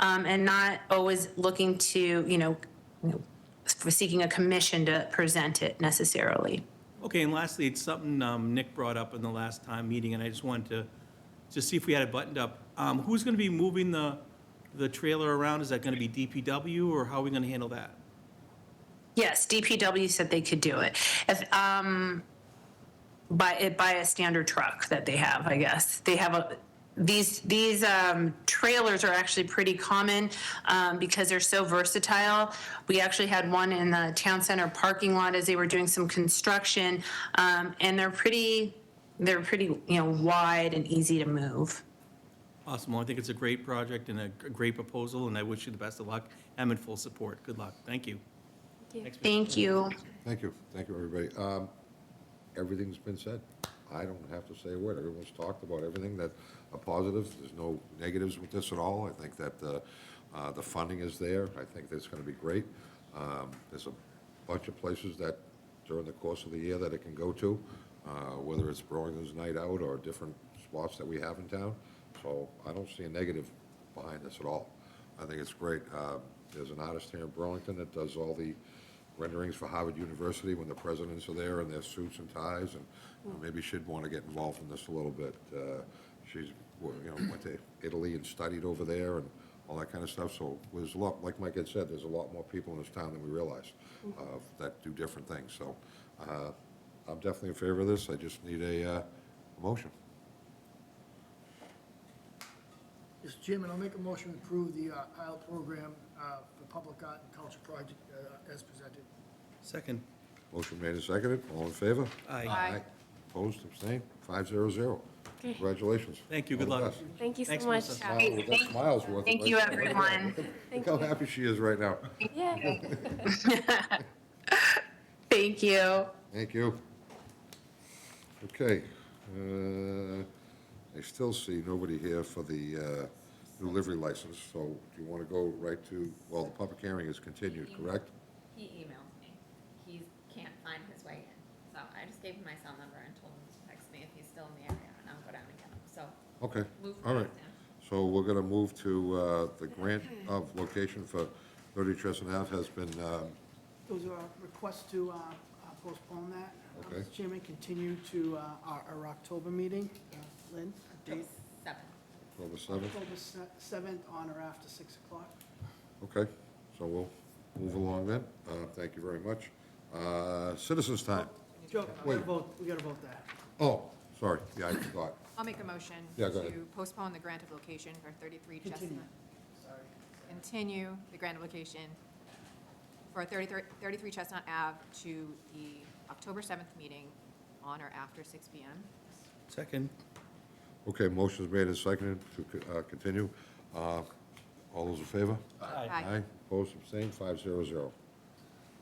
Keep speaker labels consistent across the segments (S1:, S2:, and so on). S1: um, and not always looking to, you know, seeking a commission to present it necessarily.
S2: Okay, and lastly, it's something um, Nick brought up in the last time meeting, and I just wanted to, just see if we had it buttoned up. Um, Who's going to be moving the, the trailer around? Is that going to be DPW, or how are we going to handle that?
S1: Yes, DPW said they could do it. If, um, by, it- by a standard truck that they have, I guess. They have a, these, these, um, trailers are actually pretty common, um, because they're so versatile. We actually had one in the town center parking lot as they were doing some construction. Um, and they're pretty, they're pretty, you know, wide and easy to move.
S2: Awesome, well, I think it's a great project and a g- great proposal, and I wish you the best of luck. I'm in full support. Good luck. Thank you. Thanks, Mr.
S1: Thank you.
S3: Thank you, thank you, everybody. Um, Everything's been said. I don't have to say a word. Everyone's talked about everything that are positives. There's no negatives with this at all. I think that uh, uh, the funding is there. I think that's going to be great. Um, There's a bunch of places that during the course of the year that it can go to, uh, whether it's Burlington's Night Out or different spots that we have in town. So I don't see a negative behind this at all. I think it's great. Um, There's an artist here in Burlington that does all the renderings for Harvard University when the presidents are there in their suits and ties, and uh, maybe she'd want to get involved in this a little bit. Uh, She's, w- you know, went to Italy and studied over there and all that kind of stuff, so there's a lot, like Mike had said, there's a lot more people in this town than we realize uh, that do different things, so uh, I'm definitely in favor of this, I just need a uh, a motion.
S4: Mr. Chairman, I'll make a motion to approve the uh, Isle program uh, for public art and culture project uh, as presented.
S2: Second.
S3: Motion made and seconded, all in favor?
S2: Aye.
S3: Opposed, abstained, five zero zero. Congratulations.
S2: Thank you, good
S3: All the
S2: luck.
S3: best.
S5: Thank you so
S2: Thanks,
S5: much.
S2: Melissa.
S3: Wow, that's miles worth. of
S1: Thank you,
S3: right there. Look at that.
S1: everyone.
S3: Look how happy she is right now.
S5: Yeah.
S1: Thank you.
S3: Thank you. Okay, uh, I still see nobody here for the uh, new livery license, so do you want to go right to, well, the public hearing is continued, correct?
S6: He emails me. He can't find his way in. So I just gave him my cell number and told him to text me if he's still in the area and I'll go down and get him. So
S3: Okay,
S6: move
S3: all
S6: things
S3: right.
S6: down.
S3: So we're going to move to uh, the grant of location for 30 Tresson Ave has been, um,
S7: Those are requests to uh, uh, postpone that. Uh,
S3: Okay.
S7: Mr. Chairman, continue to uh, our our October meeting. Uh, Lynn, a date?
S6: Seven.
S3: October 7th.
S7: October se- 7th on or after 6 o'clock.
S3: Okay, so we'll move along then. Uh, Thank you very much. Uh, Citizens' time.
S7: Joe, we
S3: Wait.
S7: gotta vote, we gotta vote that.
S3: Oh, sorry, yeah, I forgot.
S8: I'll make a motion
S3: Yeah, go ahead.
S8: to postpone the grant of location for 33 Chestnut.
S7: Continue.
S8: Continue the grant application for 33 33 Chestnut Ave to the October 7th meeting on or after 6 PM.
S2: Second.
S3: Okay, motion's made and seconded to uh, continue. Uh, All those in favor?
S8: Aye.
S3: Opposed, abstained, five zero zero.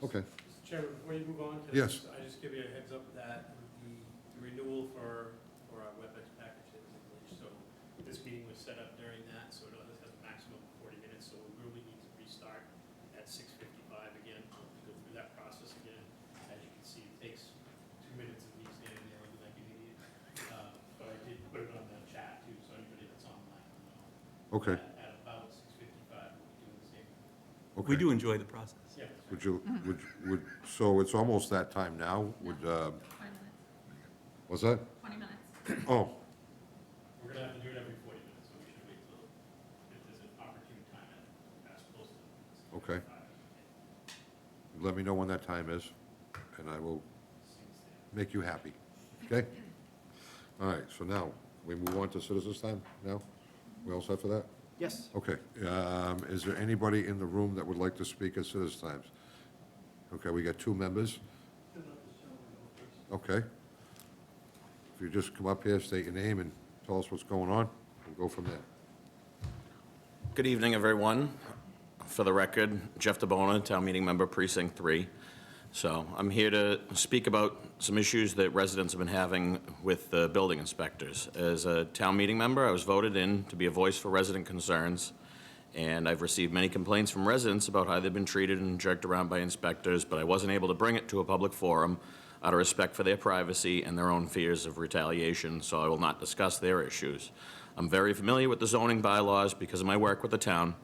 S3: Okay,
S9: Mr. Chairman, before you move on to
S3: Yes.
S9: this, I just give you a heads up that the renewal for, for our WebEx package is in place. So this meeting was set up during that, so it only has a maximum of forty minutes, so we really need to restart at six fifty-five again, to go through that process again. As you can see, it takes two minutes of me standing there looking like an idiot. Uh, But I did put it on the chat too, so anybody that's online will know.
S3: okay,
S9: At- At about six fifty-five, we'll be doing the same.
S2: We
S3: okay.
S2: do enjoy the process.
S9: Yeah.
S3: Would you, would, would, so it's almost that time now, would, uh,
S6: Twenty minutes.
S3: what's that?
S6: Twenty minutes.
S3: Oh,
S9: We're gonna have to do it every forty minutes, so we should wait till, if there's an opportune time at, as close to.
S3: Okay. let me know when that time is, and I will make you happy, okay? All right, so now, we move on to citizens' time now? We all set for that?
S7: Yes,
S3: Okay, um, is there anybody in the room that would like to speak at citizens' times? Okay, we got two members. Okay. If you just come up here, state your name and tell us what's going on, we'll go from there.
S10: Good evening, everyone. For the record, Jeff DeBona, Town Meeting Member Precinct 3. So I'm here to speak about some issues that residents have been having with the building inspectors. As a town meeting member, I was voted in to be a voice for resident concerns, and I've received many complaints from residents about how they've been treated and jerked around by inspectors, but I wasn't able to bring it to a public forum out of respect for their privacy and their own fears of retaliation, so I will not discuss their issues. I'm very familiar with the zoning bylaws because of my work with the town,